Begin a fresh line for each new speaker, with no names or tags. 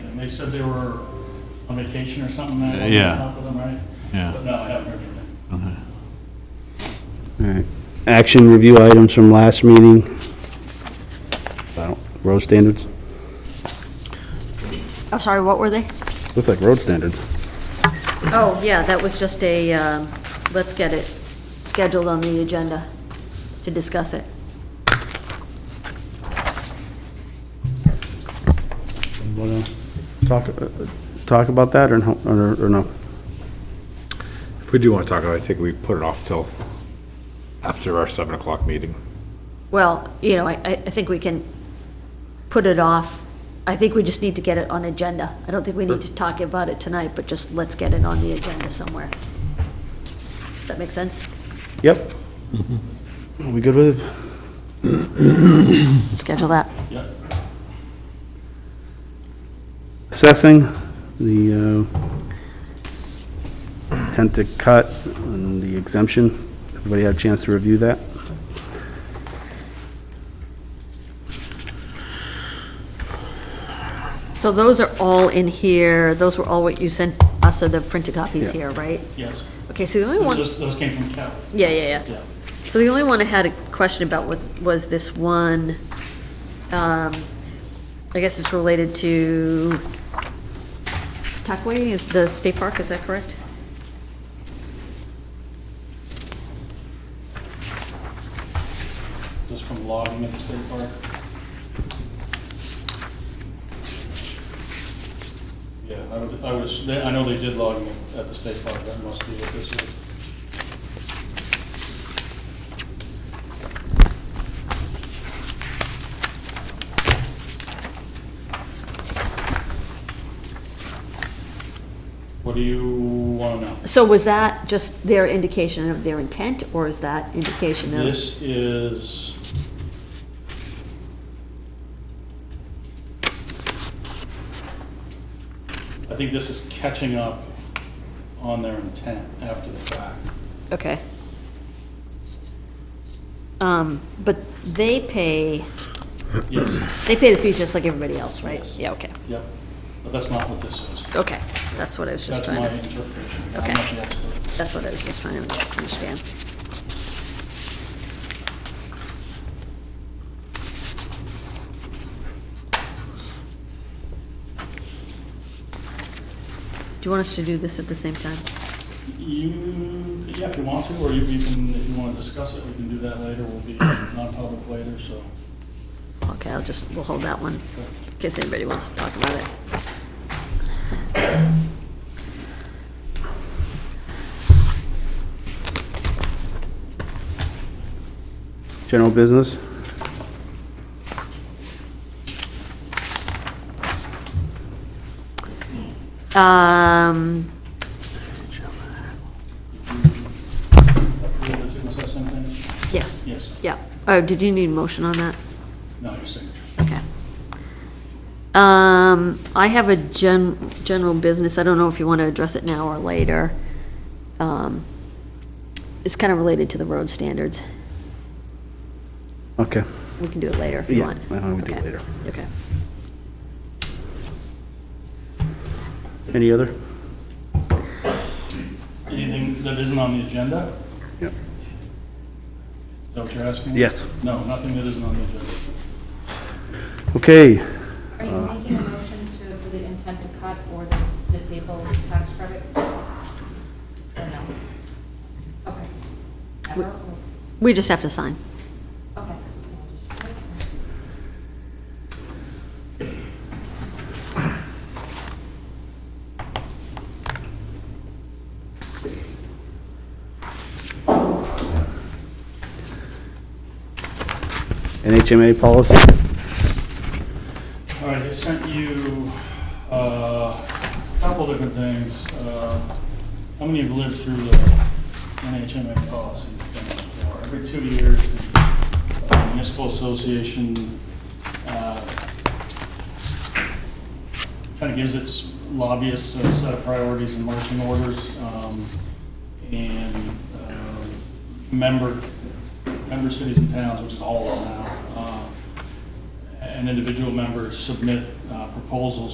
They said they were on vacation or something. I don't
Yeah.
talk with them, right?
Yeah.
But no, I haven't heard from them.
Alright. Action review items from last meeting. I don't- Road standards?
Oh, sorry, what were they?
Looks like road standards.
Oh, yeah, that was just a, um, let's get it scheduled on the agenda to discuss it.
Wanna Talk, uh, talk about that or no, or or no?
If we do want to talk about it, I think we put it off till after our 7 o'clock meeting.
Well, you know, I, I I think we can put it off. I think we just need to get it on agenda. I don't think we need to talk about it tonight, but just let's get it on the agenda somewhere. Does that make sense?
Yep. Are we good with it?
Schedule that.
Yep.
Assessing, the uh, intent to cut and the exemption. Everybody had a chance to review that?
So those are all in here. Those were all what you sent us, are the printed copies
Yeah.
here, right?
Yes.
Okay, so the only one,
Those, those came from Cal.
yeah, yeah, yeah.
Yeah.
So the only one I had a question about wa- was this one, um, I guess it's related to Tuckway, is the state park, is that correct?
Just from logging at the state park. Yeah, I would, I would, ass- they- I know they did logging at- at the state park. That must be what this is. What do you want to know?
So was that just their indication of their intent, or is that indication of?
This is... I think this is catching up on their intent after the fact.
Okay. Um, but they pay,
Yes,
they pay the fees just like everybody else, right?
Yes.
Yeah, okay,
yep, but that's not what this is.
okay, that's what I was just
That's
trying
my
to.
interpretation. I'm
Okay.
not the expert.
That's what I was just trying to understand. Do you want us to do this at the same time?
You, yeah, if you want to, or you you can, if you want to discuss it, we can do that later. We'll be non-public later, so.
Okay, I'll just, we'll hold that one, in case anybody wants to talk about it.
General business?
Um,
Approve it, too. Is that something?
yes,
Yes,
yeah. Oh, did you need a motion on that?
no, your signature.
Okay. Um, I have a gen, general business, I don't know if you want to address it now or later. Um, It's kind of related to the road standards.
Okay.
We can do it later if you
Yeah,
want.
why don't we do it
Okay.
later?
Okay.
Any other?
Anything that isn't on the agenda?
Yep.
Is that what you're asking?
Yes.
No, nothing that isn't on the agenda.
Okay,
Are you making a motion to, for the intent to cut or the disabled tax credit? Or no? Okay. Ever? or-
We just have to sign.
Okay.
NHMA policy?
All right, I sent you uh, a couple different things. Uh, How many have lived through the NHMA policy thing before? Every two years, the uh, municipal association uh, kind of gives its lobbyists a set of priorities and marching orders. um, And uh, member, member cities and towns, which is all of them now, uh, an individual member submit uh, proposals